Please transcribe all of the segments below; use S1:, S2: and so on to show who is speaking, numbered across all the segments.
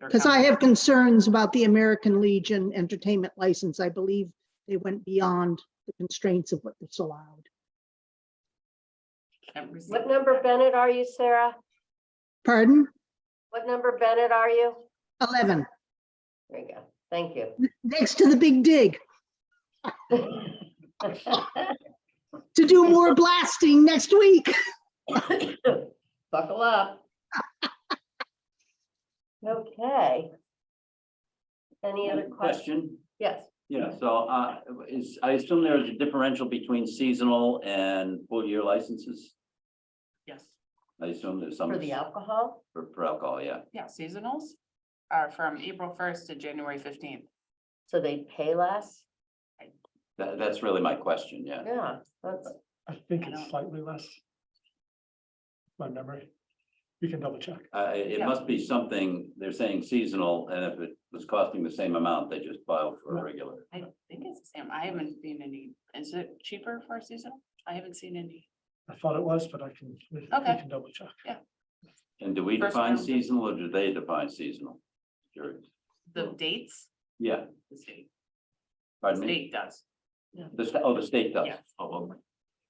S1: or
S2: Because I
S1: company.
S2: have concerns about the American Legion entertainment license. I believe they went beyond the constraints of what was allowed.
S1: Can't resist
S3: What number
S1: that.
S3: Bennett are you, Sarah?
S2: Pardon?
S3: What number Bennett are you?
S2: 11,
S3: There you go. Thank you.
S2: next to the Big Dig, to do more blasting next week.
S3: Buckle up. Okay. Any other questions?
S4: Question,
S3: Yes,
S4: yeah, so uh, is, I assume there is a differential between seasonal and full year licenses?
S1: Yes,
S4: I assume there's some
S3: for the alcohol?
S4: for for alcohol, yeah.
S1: yeah, seasonals are from April first to January fifteenth.
S3: So they pay less?
S4: That, that's really my question, yeah.
S3: Yeah, that's,
S5: I think
S1: I don't-
S5: it's slightly less. My memory. We can double check.
S4: Uh, it it
S1: Yeah.
S4: must be something, they're saying seasonal, and if it was costing the same amount, they just filed for a
S5: Right.
S4: regular.
S1: I think it's the same. I haven't seen any. Is it cheaper for seasonal? I haven't seen any.
S5: I thought it was, but I can, we we
S1: Okay.
S5: can double check.
S4: And do we
S1: First
S4: define
S1: round.
S4: seasonal or do they define seasonal? Curious.
S1: The dates,
S4: Yeah,
S1: the state, the
S4: pardon me?
S1: state does.
S4: The, sta- oh, the state does.
S1: Yeah.
S4: Oh,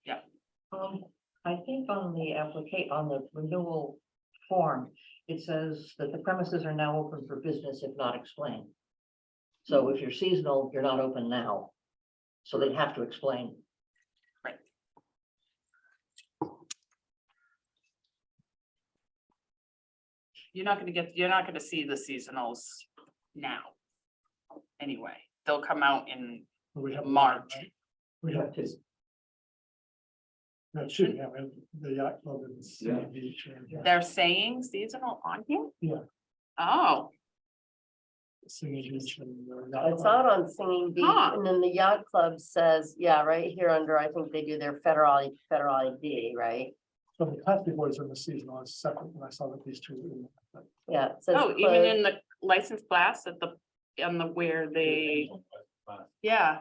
S4: okay.
S6: Um, I think on the applica- on the renewal form, it says that the premises are now open for business if not explained. So if you're seasonal, you're not open now. So they'd have to explain.
S1: You're not gonna get, you're not gonna see the seasonals now. Anyway, they'll come out in
S5: We have-
S1: March.
S5: We have to. No, shoot, yeah, we have the yacht club and city
S4: Yeah.
S5: beach. and, yeah,
S1: They're saying seasonal on here?
S5: Yeah.
S1: Oh,
S5: Singing beach and. uh, yacht
S3: it's out
S5: club.
S3: on Singing Beach,
S1: Huh.
S3: and then the yacht club says, yeah, right here under, I think they do their federal, federal ID, right?
S5: So the classic boys in the season was separate when I saw that these two. were in there, but
S3: Yeah. it says
S1: oh, even
S3: closed.
S1: in the license blast at the, on the where they,
S7: uh,
S1: yeah.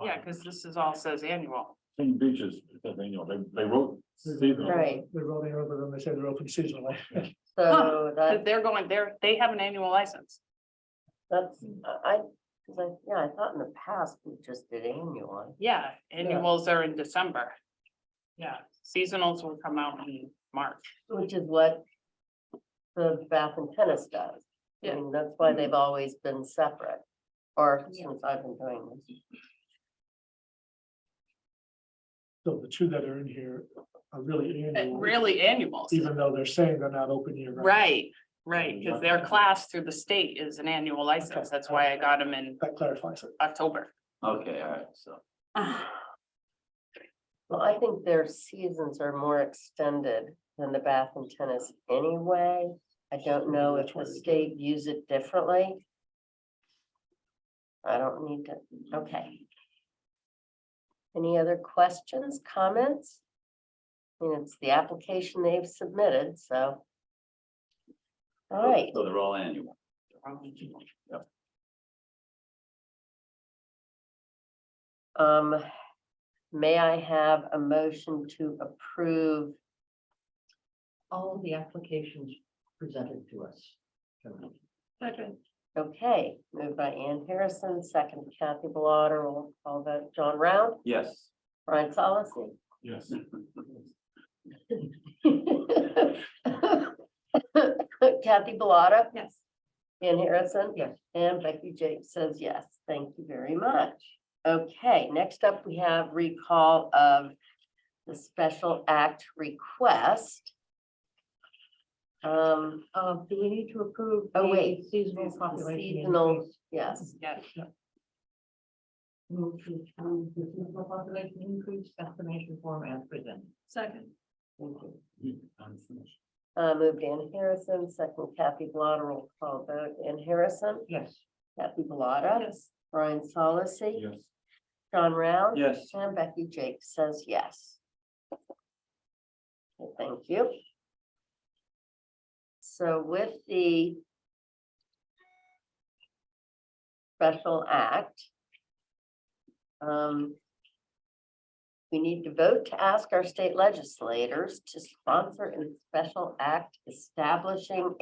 S1: Yeah, because this is all says annual.
S7: Same beaches, because they, you know, they, they wrote seasonal.
S3: Right.
S5: They're rolling over and they say they're open seasonally.
S3: So
S1: But
S3: that,
S1: They're going, they're, they have an annual license.
S3: that's, I, I- 'cause I, yeah, I thought in the past we just did annual.
S1: Yeah, annuals are in December. Yeah, seasonals will come out in March.
S3: Which is what the bath and tennis does. I
S1: Yeah.
S3: mean, that's why they've always been separate, or since I've been doing this.
S5: So the two that are in here are really
S1: Uh,
S5: annual.
S1: Really annuals,
S5: Even though they're saying they're not open year. round.
S1: right, right, because their class through the state is an annual license. That's why I got them in
S5: That clarifies it.
S1: October.
S4: Okay, all right, so.
S3: Well, I think their seasons are more extended than the bath and tennis anyway. I don't know if
S5: That's
S3: the
S5: what it is.
S3: state views it differently. I don't need to, okay. Any other questions, comments? I mean, It's the application they've submitted, so. All right,
S4: So they're all annual.
S3: um, may I have a motion to approve?
S6: All of the applications presented to us. tonight.
S3: Okay, moved by Ann Harrison, second Kathy Bellata, roll call vote, John Round,
S4: Yes.
S3: Brian Solace.
S7: Yes.
S3: Kathy Bellata,
S1: Yes.
S3: Ann Harrison.
S6: Yes.
S3: And Becky Jakes says yes, thank you very much. Okay, next up, we have recall of the special act request. Um,
S6: Uh, do we need to approve?
S3: Oh,
S6: the
S3: wait.
S6: Seasonal population.
S3: Seasonal.
S6: increase?
S3: yes,
S1: Yes,
S6: Move to approve the seasonal population increase estimation form as presented.
S1: second.
S3: uh, moved Ann Harrison, second Kathy Bellata, roll call vote, Ann Harrison,
S6: Yes.
S3: Kathy Bellata.
S1: Yes.
S3: Brian Solace,
S7: Yes.
S3: John Round.
S4: Yes.
S3: And Becky Jake says yes. Well, Thank you. So with the special act, um, we need to vote to ask our state legislators to sponsor a special act establishing